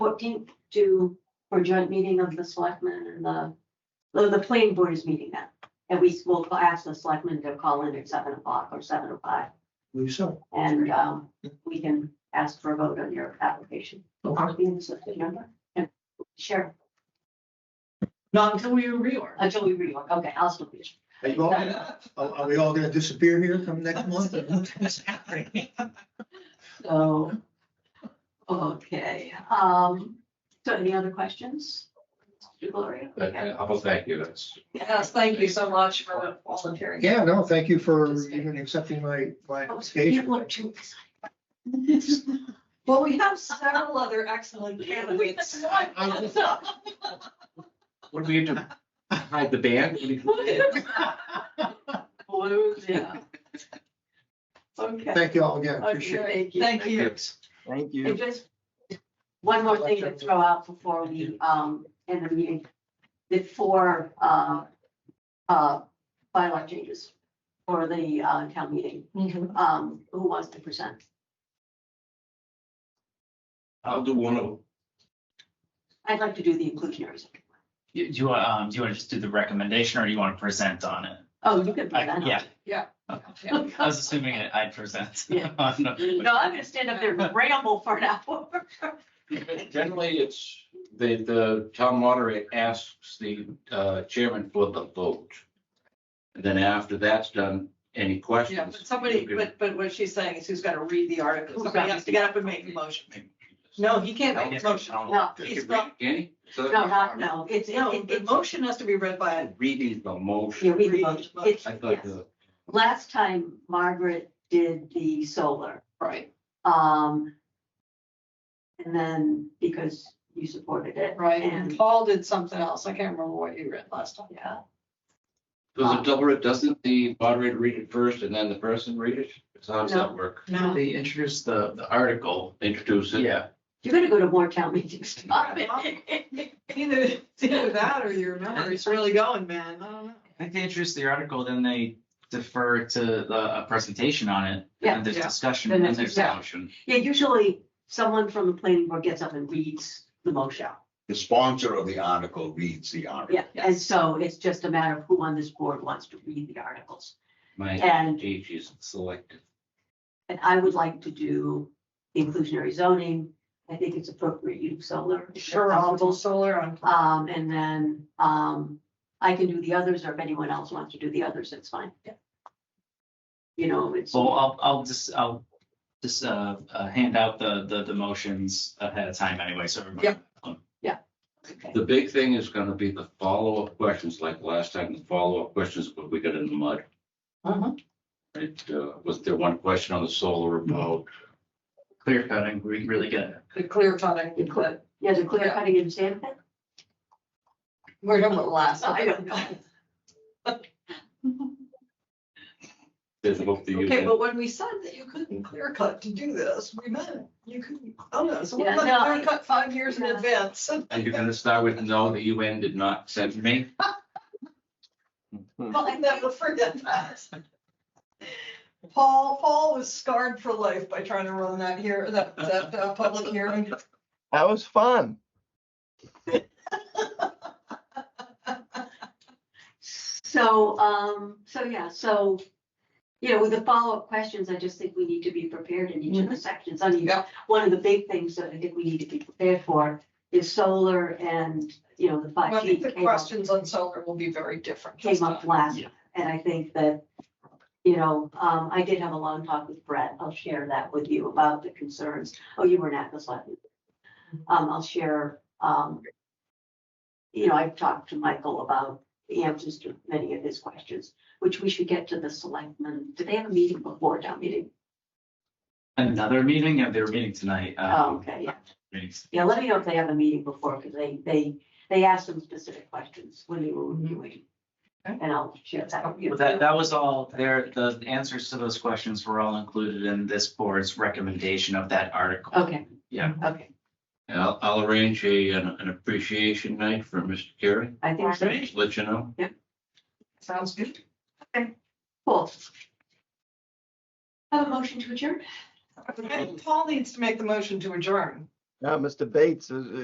fourteenth to, for joint meeting of the selectmen and the, the, the planning board is meeting that. And we will ask the selectmen to call in at seven o'clock or seven o five, believe so. and, um, we can ask for a vote on your application. Okay. Being the selectman member and share uh, Not until we reorg. until we rework. Okay, I'll still be. Are you all, are, are we all gonna disappear here come next month? So, okay, um, so any other questions? Gloria? But uh, I will thank you, that's. Yes, thank you so much for volunteering. Yeah, no, thank you for even accepting my, my Oh, People are application. too excited. excited. Well, we have several other excellent candidates. What do we do? Hide the band? Blues, yeah. Okay. Thank you all again, appreciate it. Okay, Thank you. Thank And you. just one more thing to throw out before we, um, end the meeting, the four, uh, uh, bylaw changes for the, uh, town meeting, um, who wants to present? Oh, I'll do one of them. I'd like to do the inclusionary. second. Do you, want, um, do you want to just do the recommendation or do you want to present on it? Oh, you can I- present. yeah. Yeah. I was assuming it- I'd present. Yeah. No, No, I'm gonna stand up there and ramble for an hour. Generally, it's the, the town moderator asks the uh, chairman for the vote. And then after that's done, any questions? Yeah, but somebody, you can- but, but what she's saying is who's got to read the article. Somebody has to get up and make the motion. No, he can't make the motion. No, They he's can read, not- Any? So- no, not, no, it's, it- No, it- the it's, motion has to be read by a Reading the yeah, motion. we, it's, I thought yes. the. Last time Margaret did the solar, Right, um. And then because you supported it. right. And And, Paul did something else. I can't remember what you read last time. yeah, Does it double it? Doesn't the moderator read it first and then the person read it? So How does that work? No. They introduced the, the article. Introduce it. Yeah. you're gonna go to more town meetings. Stop it. Either, it's either that or your memory's really going, man. I don't know. I think they introduced the article, then they defer to the, a presentation on it. Yeah, And there's yeah. discussion Then and it's- there's yeah. motion. Yeah, usually someone from the planning board gets up and reads the motion. The sponsor of the article reads the article. Yeah, and so it's just a matter of who on this board wants to read the articles. My And age is selective. And I would like to do inclusionary zoning. I think it's appropriate use solar. if Sure, I'll do possible. solar on. Um, and then, um, I can do the others, or if anyone else wants to do the others, that's fine. Yeah. You know, it's, So I'll, I'll just, I'll just, uh, uh, hand out the, the, the motions ahead of time anyway, so. everybody- Yep. okay. The big thing is gonna be the follow-up questions, like last time, the follow-up questions, but we got in the mud. Mhm. It, uh, was there one question on the solar remote? Clear cutting, we really get it. The clear cutting. The clip. yeah, the clear cutting and sand pit, We're done with last. I don't know. There's hope that you Okay, can, but when we said that you couldn't clear cut to do this, we meant it. you couldn't, oh no, so we Yeah, let no, clear I- cut five years in Yeah. advance. and you're gonna start with, no, the UN did not send me. Well, I never forget that. Paul, Paul was scarred for life by trying to run that here, that, that uh, public hearing. That was fun. So, um, so yeah, so, you know, with the follow-up questions, I just think we need to be prepared in each of the sections. I mean, Mm-hmm. Yeah. one of the big things that I think we need to be prepared for is solar and, you know, the Well, I five G think the came up, questions on solar will be very different. this came up time. last. uh, Yeah. And I think that, you know, um, I did have a long talk with Brett. I'll share that with you about the concerns. Oh, you weren't at this last. meeting. Um, I'll share, um, you know, I've talked to Michael about the answers to many of his questions, which we should get to the selectmen. Do they have a meeting before town meeting? Another meeting, yeah, they were meeting tonight. Oh, um, okay, yeah. meetings. Yeah, let me know if they have a meeting before, because they, they, they asked some specific questions when they were reviewing. Okay. And I'll share that with you. Well, Mm-hmm. That, that was all there, the answers to those questions were all included in this board's recommendation of that article. Okay. Yeah. Okay, And I'll, I'll arrange a, an an appreciation night for Mr. Carey, I think so. just let you know. Sounds good. Cool. Have a motion to adjourn? Okay, Paul needs to make the motion to adjourn. Now, Mr. Bates is,